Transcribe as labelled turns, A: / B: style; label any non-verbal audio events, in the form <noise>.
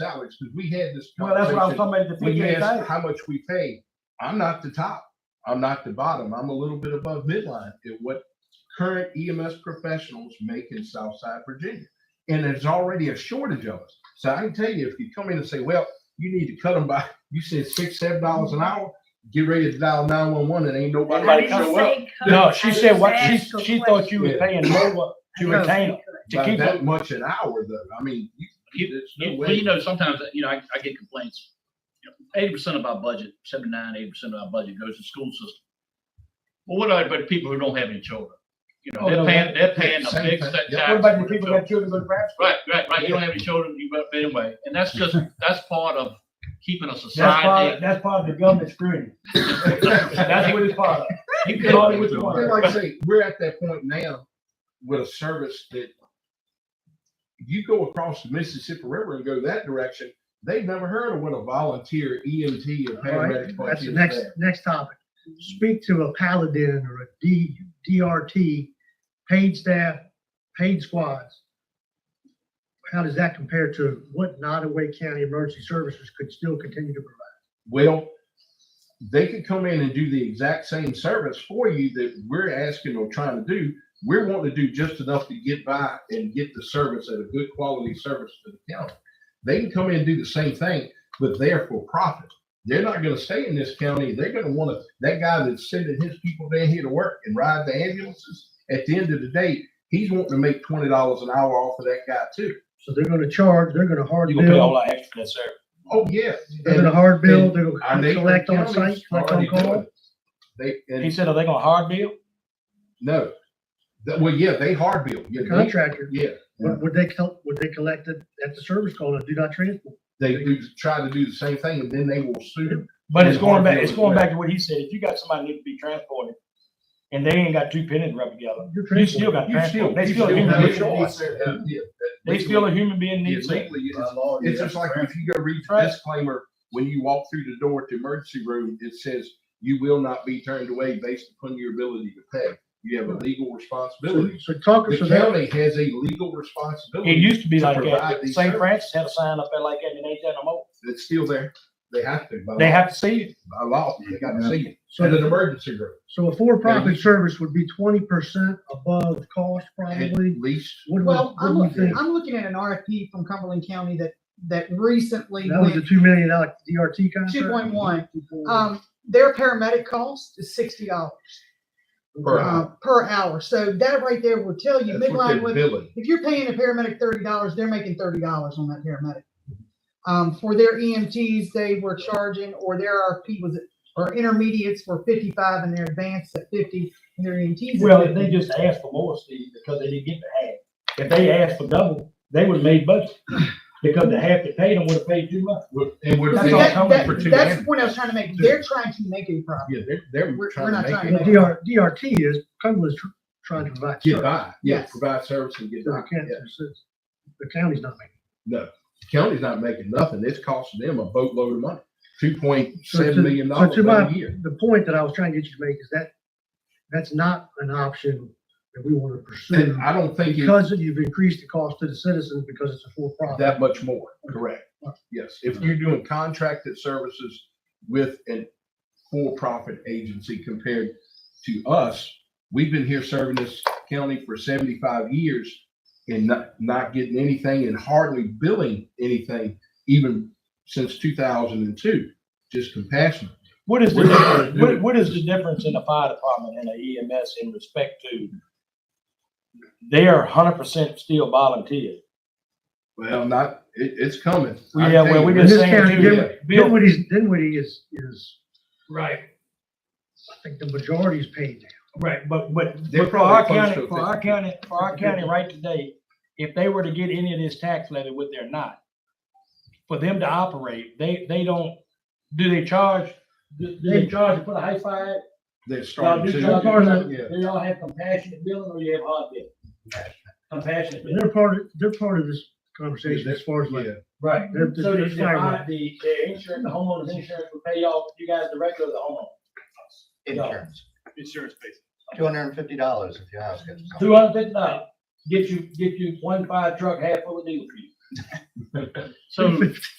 A: salaries, because we had this.
B: Well, that's what I was
A: conversation
B: talking about at the
A: when you
B: beginning. of the
A: ask
B: day.
A: how much we pay, I'm not the top. I'm not the bottom. I'm a little bit above midline at what current EMS professionals make in Southside Virginia. And there's already a shortage of us. So I can tell you, if you come in and say, well, you need to cut them by, <laughs> you said six, seven dollars an hour, get ready to dial nine one one and ain't
C: I
A: nobody
C: didn't
A: show up.
C: say cut.
D: No,
C: I
D: she
C: just
D: said what, she,
C: asked a
D: she
C: question.
D: thought you were
A: Yeah.
D: paying more <laughs> to
C: No,
D: retain them. to
A: By
D: keep
A: that
D: up.
A: much an hour though. I mean, you-
E: You-
A: there's no
E: You, well,
A: way.
E: you know, sometimes, you know, I, I get complaints. Eighty percent of our budget, seventy-nine, eighty percent of our budget goes to school system. Well, what about the people who don't have any children? You know,
B: Oh, no,
E: they're paying, they're paying a
A: same
E: big
A: thing.
E: set
A: Yeah,
B: What
E: tax
B: about
E: for
B: the
E: their
B: people
E: children.
B: that children go to private school?
E: Right, right, right. You don't have any children, you, but anyway, and that's just, that's part of keeping a
B: That's
E: society.
B: part, that's part of the government screwing.
D: <laughs>
B: That's what it's part of.
E: You
B: It's all
E: could-
B: with the
A: And
B: water.
A: like I say, we're at that point now with a service that you go across the Mississippi River and go that direction, they've never heard of what a volunteer EMT or
F: All right,
A: paramedic.
F: That's the
A: volunteer
F: next,
A: is.
F: next topic. Speak to a paladin or a D, DRT, paid staff, paid squads. How does that compare to what Nottaway County Emergency Services could still continue to provide?
A: Well, they could come in and do the exact same service for you that we're asking or trying to do. We're wanting to do just enough to get by and get the service at a good quality service to the county. They can come in and do the same thing, but they're for profit. They're not gonna stay in this county. They're gonna wanna, that guy that's sending his people down here to work and ride the ambulances, at the end of the day, he's wanting to make twenty dollars an hour off of that guy too.
F: So they're gonna charge, they're gonna hard
D: You gonna pay all
F: bill,
D: that extra for that service.
A: Oh, yeah.
F: they're gonna hard
A: And
F: bill, they're
A: Our
F: gonna
A: neighboring
F: collect on
A: counties
F: site, collect on
A: already do
F: call.
A: it. They, and
D: He said, are they gonna hard bill?
A: No. That- well, yeah, they hard bill. Yeah,
F: The
A: they-
F: Contractor,
A: yeah.
F: would, would they, col- would they collect it at the service call and do not transport?
A: They do try to do the same thing and then they will sue.
D: But it's
A: Yeah,
D: going
A: hard
D: back,
A: bill
D: it's
A: is
D: going
A: bad.
D: back to what he said, if you got somebody that needs to be transported and they ain't got two pennies rubbed together,
F: You're
D: you
F: transporting.
D: still got
A: You
D: transport. They
A: you
D: still a human
A: have a
D: being.
A: choice. Yeah, yeah.
D: They still a human being
A: Yeah,
D: needs it.
A: legally, it's- It's just like if you go read the
D: Right.
A: disclaimer, when you walk through the door to emergency room, it says you will not be turned away based upon your ability to pay. You have a legal
F: So
A: responsibility.
F: so talk,
A: The
F: so that,
A: county has a legal
D: It
A: responsibility
D: used to be
A: To
D: like
A: provide
D: that.
A: these
D: St.
A: services.
D: Francis had a sign up there like that and it ain't that no more.
A: that's still there. They have to. by
D: They
A: law.
D: have to see it.
A: By law, they got to see it.
F: so
A: In an emergency room,
F: So a for-profit service would be twenty percent above cost
A: at
F: probably.
A: least.
F: What do we-
C: Well,
F: what
C: I'm
F: do we
C: looking,
F: think?
C: I'm looking at an RFP from Cumberland County that, that recently
F: That was the
C: went
F: two million dollar DRT contract?
C: two point one. Um, their paramedic cost is sixty dollars,
A: per hour.
C: uh, per hour. So that right there will tell you,
A: That's what
C: midline
A: they're
C: with
A: billing.
C: if you're paying a paramedic thirty dollars, they're making thirty dollars on that paramedic. Um, for their EMTs, they were charging, or their RFP was, or intermediates were fifty-five and their advanced at fifty, and their EMTs. at
D: Well, if
C: 50.
D: they just asked for more, Steve, because they didn't get the half. If they asked for double, they would have made budget. Because the half that paid them would have paid too much.
A: And we're
C: I
D: That's
C: mean,
D: all
C: that-
D: coming
C: that-
A: for two
C: That's the
A: ambulances.
C: point I was trying to make. They're trying to make a profit.
A: Yeah, they're, they're
C: We're-
A: trying
C: we're
A: to
C: not
A: make
C: trying
A: it
C: to
F: The DR, DRT is Cumberland's tr- trying to provide.
A: get
F: service.
A: by. Yeah,
C: Yes.
A: provide service and get
F: So
A: by.
F: they can't-
A: Yeah.
F: it's- it's- The county's not making.
A: No, county's not making nothing. It's costing them a boatload of money, two point
F: it. So to-
A: seven million
F: so
A: dollars
F: to
A: a
F: my-
A: year.
F: The point that I was trying to get you to make is that, that's not an option that we want to pursue
A: And I don't think it's
F: because you've increased the cost to the citizens because it's a for-profit.
A: that much more, correct? Yes, if you're doing contracted services with a for-profit agency compared to us, we've been here serving this county for seventy-five years and not, not getting anything and hardly billing anything even since two thousand and two, just compassionate.
D: What is the,
A: We're not gonna do
D: difference- what,
A: it.
D: what is the difference in a fire department and a EMS in respect to? They are hundred percent still volunteers.
A: Well, not, it, it's coming. I tell
D: Yeah, well,
A: you,
D: we
F: In
D: just
F: this
D: saying
F: county,
D: too.
A: Dinwiddie-
D: Bill,
F: Dinwiddie's, Dinwiddie is, is,
B: Right,
F: I think the majority is paid now.
D: right, but, but
A: They're
D: but for our
A: probably close
D: county,
A: to
D: for our county, for our county right today, if they were to get any of this tax levy, which they're not, for them to operate, they, they don't, do they charge, do, do they charge to put a high five?
A: They're
D: Y'all
A: starting
D: do
A: to.
D: charge-
A: Yeah.
D: Do y'all have compassionate billing or you have hard billing? Compassionate billing.
F: And they're part, of they're part of this conversation as far as like,
A: Yeah.
D: Right.
F: They're-
D: So
F: they're
D: the, the,
F: firemen.
D: uh, the, the insurance, the homeowner's insurance will pay y'all, you guys directly or the homeowner?
G: Insurance,
E: Insurance based.
G: two hundred and fifty dollars if you ask us.
D: Two hundred fifty dollars, get you, get you one fire truck half full of diesel for you.
E: So